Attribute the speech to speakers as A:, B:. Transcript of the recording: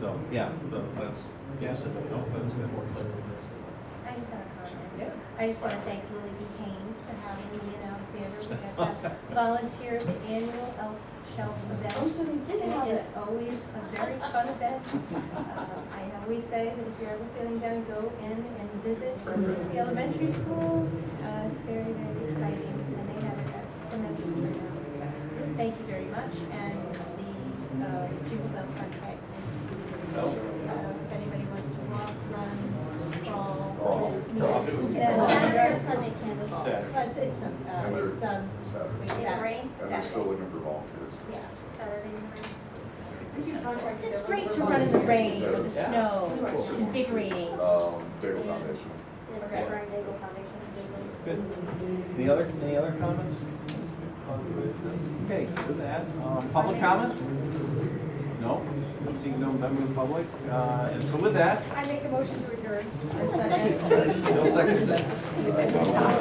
A: no,
B: Yeah.
A: no, that's,
C: Yeah.
A: yes, no, that's good.
D: I just had a comment.
C: Yeah.
D: I just want to thank Lily B. Haynes for having me and Alexander. We got to volunteer at the annual elf shelf
E: Oh,
D: event.
E: so you did have
D: And it is
E: it.
D: always a very fun event. Uh, I always say that if you're ever feeling down, go in and visit the elementary schools. Uh, It's very, very exciting, and they have a tremendous turnout. So thank you very much, and the uh, Jingle Bell contract is uh, if anybody wants to walk, run, crawl.
E: It's
D: Yeah.
E: a Saturday or Sunday candle ball.
F: Saturday.
D: Plus, it's, um,
F: And
D: uh,
F: we're-
D: it's, um,
F: Saturday.
E: Is it rain?
F: And we're still looking for volunteers.
D: yeah.
E: Saturday morning.
D: It's great to run in the rain or
C: Yeah.
D: the snow, it's invigorating.
F: Um, Daigle Foundation.
E: The Red Barn Daigle Foundation.
B: Good. Any other, any other comments? Okay, with that, um, public comment? No, seeing no member of the public, uh, and so with that,
G: I make a motion to adjourn.
B: no seconds.
F: Uh,